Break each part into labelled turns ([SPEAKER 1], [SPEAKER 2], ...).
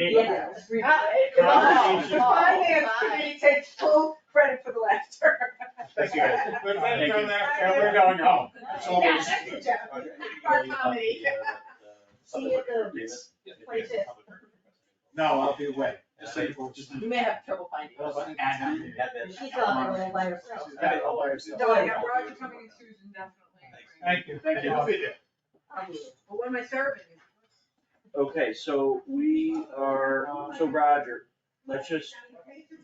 [SPEAKER 1] Read
[SPEAKER 2] Uh,
[SPEAKER 1] it.
[SPEAKER 2] come
[SPEAKER 3] on.
[SPEAKER 1] The finance committee takes full credit for the laughter.
[SPEAKER 3] Thank you. We're
[SPEAKER 4] Thank you.
[SPEAKER 3] going after, we're going home. It's always-
[SPEAKER 1] Yeah, that's the job. Our comedy.
[SPEAKER 4] See you at the
[SPEAKER 1] places.
[SPEAKER 3] No, I'll be away. Just say- just-
[SPEAKER 2] You may have trouble finding.
[SPEAKER 3] I wasn't asking.
[SPEAKER 4] She's on her own by herself.
[SPEAKER 3] She's got it all by herself.
[SPEAKER 1] No, I got
[SPEAKER 5] Roger coming and Susan definitely.
[SPEAKER 3] Thank you.
[SPEAKER 1] Thank you.
[SPEAKER 3] I'll be there.
[SPEAKER 5] But when am I serving?
[SPEAKER 4] Okay, so we are, so Roger, let's just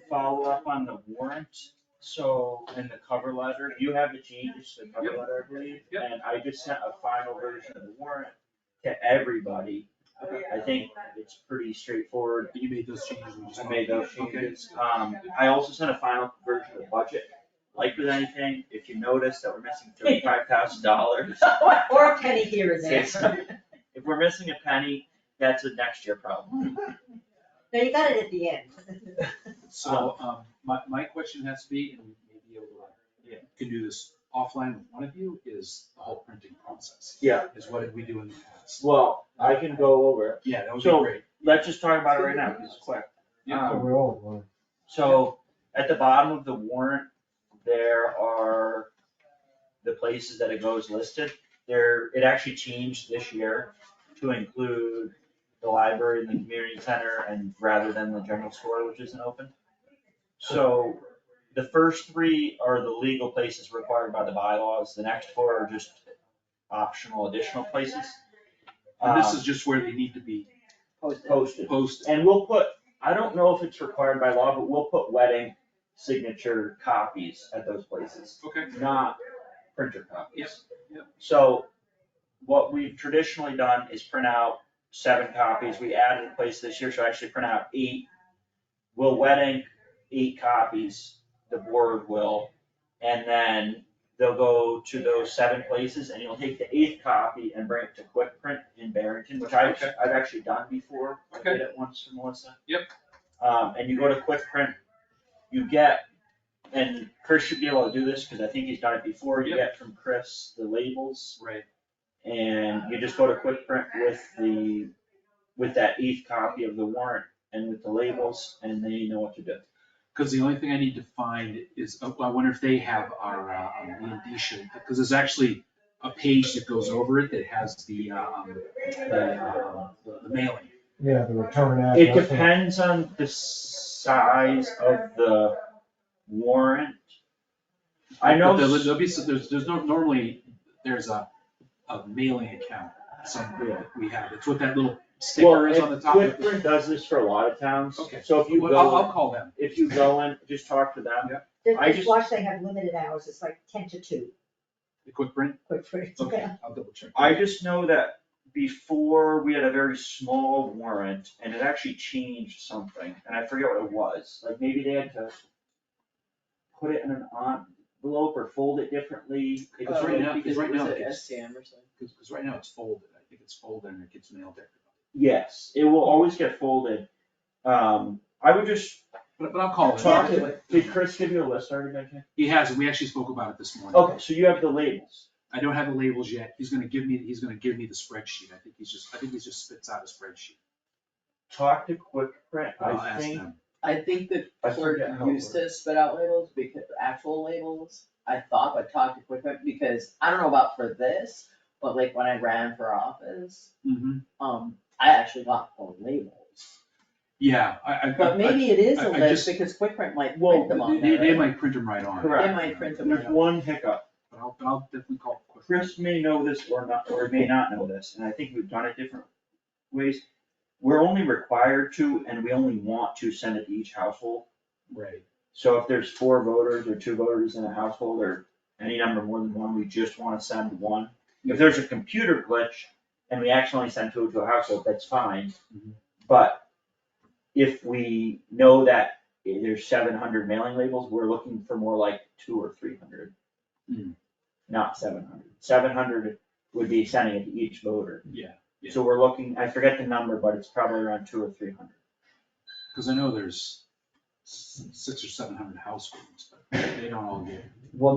[SPEAKER 4] follow up on the warrant. So in the cover letter, you have the changes to the cover letter, I believe.
[SPEAKER 6] Yep.
[SPEAKER 4] And I just sent a final version of the warrant to everybody. I think it's pretty straightforward.
[SPEAKER 3] You made those changes. we just-
[SPEAKER 4] I made those changes. Um, I also sent a final version of the budget. Like with anything, if you notice that we're missing thirty-five thousand dollars,
[SPEAKER 2] Or
[SPEAKER 4] Or
[SPEAKER 2] a penny here and
[SPEAKER 4] there.
[SPEAKER 2] there.
[SPEAKER 4] if we're missing a penny, that's a next year problem.
[SPEAKER 2] No, you got it at the end.
[SPEAKER 3] So, um, my, my question has to be, and maybe
[SPEAKER 4] Yeah.
[SPEAKER 3] able can do this offline with one of you, is the whole printing process.
[SPEAKER 4] Yeah.
[SPEAKER 3] Is what did we do in the past?
[SPEAKER 4] Well,
[SPEAKER 3] I
[SPEAKER 4] can go over it.
[SPEAKER 3] Yeah, that would be
[SPEAKER 4] So-
[SPEAKER 3] great.
[SPEAKER 4] Let's just talk about it right now, 'cause it's quick.
[SPEAKER 3] Yeah.
[SPEAKER 4] Um, So at the bottom of the warrant, there are the places that it goes listed. There, it actually changed this year to include the library and the community center and rather than the general store, which isn't open. So the first three are the legal places required by the bylaws. The next four are just optional additional places.
[SPEAKER 3] And this
[SPEAKER 4] Um,
[SPEAKER 3] is just where they need to be
[SPEAKER 4] Posted.
[SPEAKER 3] posted.
[SPEAKER 4] And we'll put, I don't know if it's required by law, but we'll put wedding signature copies at those places,
[SPEAKER 3] Okay.
[SPEAKER 4] not printer copies.
[SPEAKER 3] Yes, yep.
[SPEAKER 4] So what we've traditionally done is print out seven copies. We added a place this year, so actually print out eight. We'll wet ink eight copies, the board will, and then they'll go to those seven places and you'll take the eighth copy and bring it to Quick Print in Barrington, which I've,
[SPEAKER 3] Okay.
[SPEAKER 4] I've actually done before. I
[SPEAKER 3] Okay.
[SPEAKER 4] did it once for Melissa.
[SPEAKER 3] Yep.
[SPEAKER 4] Um, and you go to Quick Print, you get, and Chris should be able to do this, cause I think he's done it before, you
[SPEAKER 3] Yep.
[SPEAKER 4] get from Chris the labels
[SPEAKER 3] Right.
[SPEAKER 4] and you just go to quick print with the, with that eighth copy of the warrant and with the labels, and then you know what to do.
[SPEAKER 3] Because the only thing I need to find is, oh, I wonder if they have our, uh, um, the indicia, because there's actually a page that goes over it that has the, um, the, uh, the the mailing.
[SPEAKER 7] Yeah, the return address.
[SPEAKER 4] It depends on the size of the warrant. I know,
[SPEAKER 3] But there'll,
[SPEAKER 4] s-
[SPEAKER 3] there'll be, some- there's, there's no, normally, there's a, a mailing account somewhere that we have. It's what that little
[SPEAKER 4] well,
[SPEAKER 3] sticker is on the
[SPEAKER 4] if
[SPEAKER 3] top of
[SPEAKER 4] Quick
[SPEAKER 3] the.
[SPEAKER 4] Print does this for a lot of towns,
[SPEAKER 3] Okay.
[SPEAKER 4] so if you
[SPEAKER 3] Well, I'll, I'll
[SPEAKER 4] go,
[SPEAKER 3] call them.
[SPEAKER 4] if you go and just talk to them,
[SPEAKER 2] The
[SPEAKER 4] I just-
[SPEAKER 2] dishwasher, they have limited hours, it's like ten to two,
[SPEAKER 3] The quick print?
[SPEAKER 2] quick for it.
[SPEAKER 3] Okay, I'll double check.
[SPEAKER 4] I just know that before, we had a very small warrant, and it actually changed something, and I forget what it was, like maybe they had to put it in an envelope or fold it differently. It
[SPEAKER 3] Because
[SPEAKER 4] Oh, was
[SPEAKER 3] right
[SPEAKER 4] really-
[SPEAKER 3] now, because right now, it gets,
[SPEAKER 5] SCM or something?
[SPEAKER 3] because because right now it's folded. I think it's folded and it gets mailed there.
[SPEAKER 4] Yes, it will always get folded. Um, I would just,
[SPEAKER 3] But, but I'll call
[SPEAKER 4] Talk
[SPEAKER 3] them.
[SPEAKER 4] to- did Chris give you a list already, Benji?
[SPEAKER 3] He has, and we actually spoke about it this morning.
[SPEAKER 4] Okay, so you have the labels.
[SPEAKER 3] I don't have the labels yet. He's gonna give me, he's gonna give me the spreadsheet. I think he's just, I think he just spits out a spreadsheet.
[SPEAKER 4] Talk to Quick Print,
[SPEAKER 3] I'll
[SPEAKER 4] I
[SPEAKER 3] ask
[SPEAKER 4] think,
[SPEAKER 3] them.
[SPEAKER 8] I think the
[SPEAKER 4] I
[SPEAKER 8] clerk
[SPEAKER 4] forget how it
[SPEAKER 8] used to spit out labels, because, actual labels, I thought, but talked to Quickbooks, because I don't know about for this, but like when I ran for office,
[SPEAKER 3] Mhm.
[SPEAKER 8] um, I actually got the labels.
[SPEAKER 3] Yeah, I, I. I-
[SPEAKER 8] But maybe it is
[SPEAKER 3] I-
[SPEAKER 8] a
[SPEAKER 3] I
[SPEAKER 8] list,
[SPEAKER 3] just-
[SPEAKER 8] because Quick Print might
[SPEAKER 4] Well,
[SPEAKER 8] print them on
[SPEAKER 3] They,
[SPEAKER 8] there,
[SPEAKER 3] they
[SPEAKER 8] right?
[SPEAKER 3] might print them right on.
[SPEAKER 4] Correct.
[SPEAKER 8] They might print them.
[SPEAKER 4] there's one hiccup.
[SPEAKER 3] But I'll, but I'll definitely call. Quick Print.
[SPEAKER 4] Chris may know this or not, or may not know this, and I think we've done it different ways. We're only required to, and we only want to send it to each household.
[SPEAKER 3] Right.
[SPEAKER 4] So if there's four voters or two voters in a household or any number more than one, we just wanna send one. If there's a computer glitch and we accidentally send two to a household, that's fine.
[SPEAKER 3] Mhm.
[SPEAKER 4] But if we know that there's seven hundred mailing labels, we're looking for more like two or three hundred.
[SPEAKER 3] Hmm.
[SPEAKER 4] Not seven hundred. Seven hundred would be sending it to each voter.
[SPEAKER 3] Yeah, yeah.
[SPEAKER 4] So we're looking, I forget the number, but it's probably around two or three hundred.
[SPEAKER 3] Cause I know there's s- six or seven hundred households, but they don't all get
[SPEAKER 4] Well,